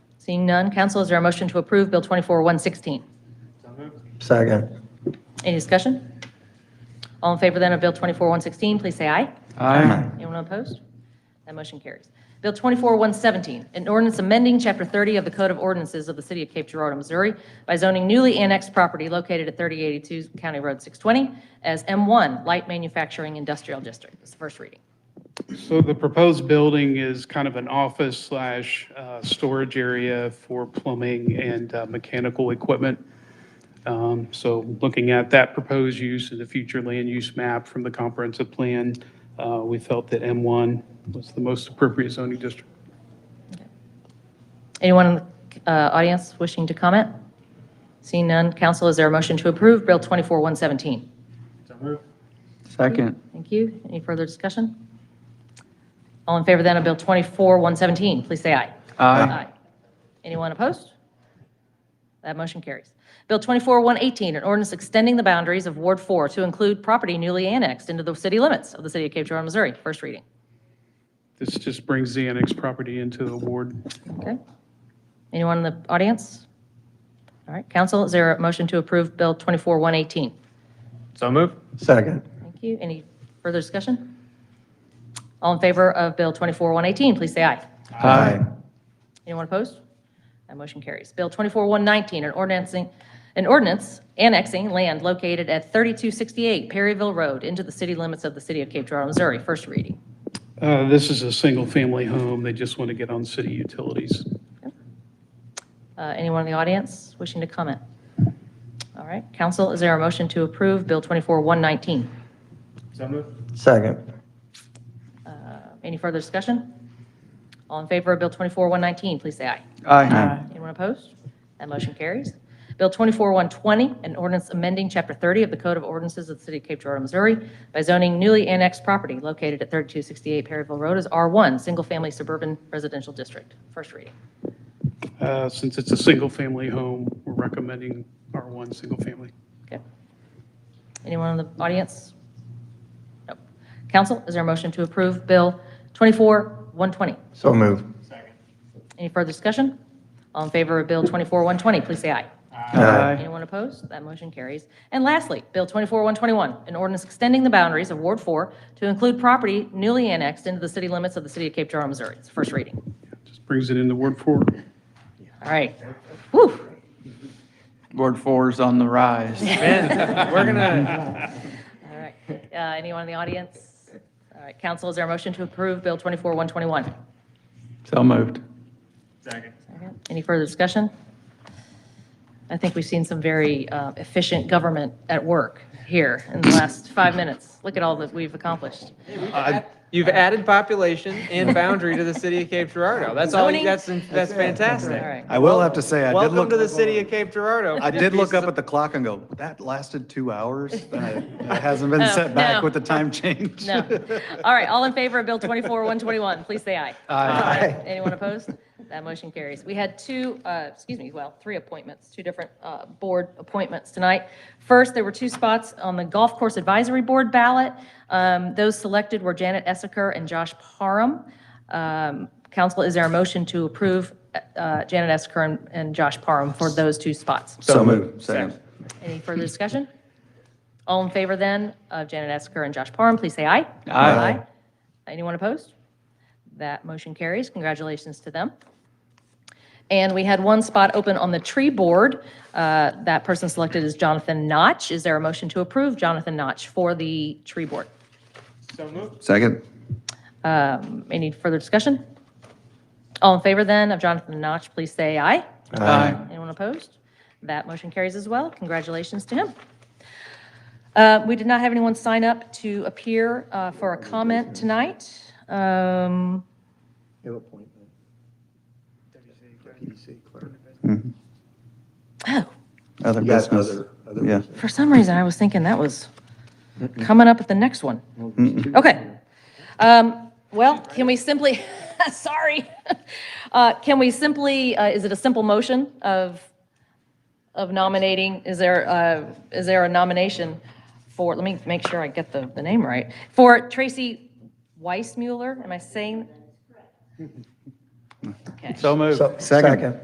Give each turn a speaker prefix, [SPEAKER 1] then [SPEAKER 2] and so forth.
[SPEAKER 1] Seeing none, council, is there a motion to approve Bill 24-116?
[SPEAKER 2] Second.
[SPEAKER 1] Any discussion? All in favor then of Bill 24-116, please say aye.
[SPEAKER 3] Aye.
[SPEAKER 1] Anyone opposed? That motion carries. Bill 24-117, an ordinance amending Chapter 30 of the Code of Ordinances of the City of Cape Girardeau, Missouri by zoning newly annexed property located at 3082 County Road 620 as M1 Light Manufacturing Industrial District. It's the first reading.
[SPEAKER 4] So the proposed building is kind of an office slash uh, storage area for plumbing and uh, mechanical equipment. Um, So looking at that proposed use and the future land use map from the comprehensive plan, uh, we felt that M1 was the most appropriate zoning district.
[SPEAKER 1] Anyone in the uh, audience wishing to comment? Seeing none, council, is there a motion to approve Bill 24-117?
[SPEAKER 3] Second.
[SPEAKER 1] Thank you. Any further discussion? All in favor then of Bill 24-117, please say aye.
[SPEAKER 3] Aye.
[SPEAKER 1] Anyone opposed? That motion carries. Bill 24-118, an ordinance extending the boundaries of Ward 4 to include property newly annexed into the city limits of the city of Cape Girardeau, Missouri. First reading.
[SPEAKER 4] This just brings the annex property into the ward.
[SPEAKER 1] Okay. Anyone in the audience? All right, council, is there a motion to approve Bill 24-118?
[SPEAKER 3] So move.
[SPEAKER 2] Second.
[SPEAKER 1] Thank you. Any further discussion? All in favor of Bill 24-118, please say aye.
[SPEAKER 3] Aye.
[SPEAKER 1] Anyone opposed? That motion carries. Bill 24-119, an ordinancing, an ordinance annexing land located at 3268 Perryville Road into the city limits of the city of Cape Girardeau, Missouri. First reading.
[SPEAKER 4] Uh, This is a single-family home. They just want to get on city utilities.
[SPEAKER 1] Uh, Anyone in the audience wishing to comment? All right, council, is there a motion to approve Bill 24-119?
[SPEAKER 2] Second.
[SPEAKER 1] Uh, Any further discussion? All in favor of Bill 24-119, please say aye.
[SPEAKER 3] Aye.
[SPEAKER 1] Anyone opposed? That motion carries. Bill 24-120, an ordinance amending Chapter 30 of the Code of Ordinances of the City of Cape Girardeau, Missouri by zoning newly annexed property located at 3268 Perryville Road as R1, Single Family Suburban Residential District. First reading.
[SPEAKER 4] Uh, Since it's a single-family home, we're recommending R1 single-family.
[SPEAKER 1] Okay. Anyone in the audience? Nope. Council, is there a motion to approve Bill 24-120?
[SPEAKER 2] So move.
[SPEAKER 1] Any further discussion? All in favor of Bill 24-120, please say aye.
[SPEAKER 3] Aye.
[SPEAKER 1] Anyone opposed? That motion carries. And lastly, Bill 24-121, an ordinance extending the boundaries of Ward 4 to include property newly annexed into the city limits of the city of Cape Girardeau, Missouri. It's first reading.
[SPEAKER 4] Just brings it into Ward 4.
[SPEAKER 1] All right. Whew.
[SPEAKER 3] Ward four's on the rise. we're gonna.
[SPEAKER 1] All right. Uh, Anyone in the audience? All right, council, is there a motion to approve Bill 24-121?
[SPEAKER 3] So moved.
[SPEAKER 1] Second. Any further discussion? I think we've seen some very uh, efficient government at work here in the last five minutes. Look at all that we've accomplished.
[SPEAKER 5] You've added population and boundary to the city of Cape Girardeau. That's all,
[SPEAKER 1] Zoning.
[SPEAKER 5] you- that's, that's
[SPEAKER 1] All
[SPEAKER 5] fantastic.
[SPEAKER 1] right.
[SPEAKER 6] I will have to say, I did
[SPEAKER 5] Welcome to the
[SPEAKER 6] look,
[SPEAKER 5] city of Cape Girardeau.
[SPEAKER 6] I did look up at the clock and go, that lasted two hours? That hasn't
[SPEAKER 1] Oh,
[SPEAKER 6] been set back
[SPEAKER 1] no.
[SPEAKER 6] with the time change.
[SPEAKER 1] No. All right, all in favor of Bill 24-121, please say aye. Aye. Anyone opposed? That motion carries. We had two, uh, excuse me, well, three appointments, two different uh, board appointments tonight. First, there were two spots on the Golf Course Advisory Board ballot. Um, Those selected were Janet Essaker and Josh Parham. Um, Council, is there a motion to approve uh, Janet Essaker and- and Josh Parham for those two spots?
[SPEAKER 6] So move. Second.
[SPEAKER 1] Any further discussion? All in favor then of Janet Esker and Josh Parham, please say aye.
[SPEAKER 3] Aye.
[SPEAKER 1] Anyone opposed? That motion carries. Congratulations to them. And we had one spot open on the tree board. Uh, That person selected is Jonathan Notch. Is there a motion to approve Jonathan Notch for the tree board?
[SPEAKER 6] Second.
[SPEAKER 1] Um, Any further discussion? All in favor then of Jonathan Notch, please say aye.
[SPEAKER 3] Aye.
[SPEAKER 1] Anyone opposed? That motion carries as well. Congratulations to him. Uh, We did not have anyone sign up to appear uh, for a comment tonight. Um,
[SPEAKER 2] New appointment. PDC clerk.
[SPEAKER 1] Oh,
[SPEAKER 6] Other
[SPEAKER 2] You got
[SPEAKER 6] business.
[SPEAKER 2] other- other
[SPEAKER 6] Yeah.
[SPEAKER 2] business.
[SPEAKER 1] for some reason, I was thinking that was coming up at the next one. Okay. Um, Well, can we simply, sorry, Uh, can we simply, uh, is it a simple motion of, of nominating? Is there, uh, is there a nomination for, let me make sure I get the, the name right, for Tracy Weissmuller? Am I saying?
[SPEAKER 3] So moved.
[SPEAKER 2] So- Second.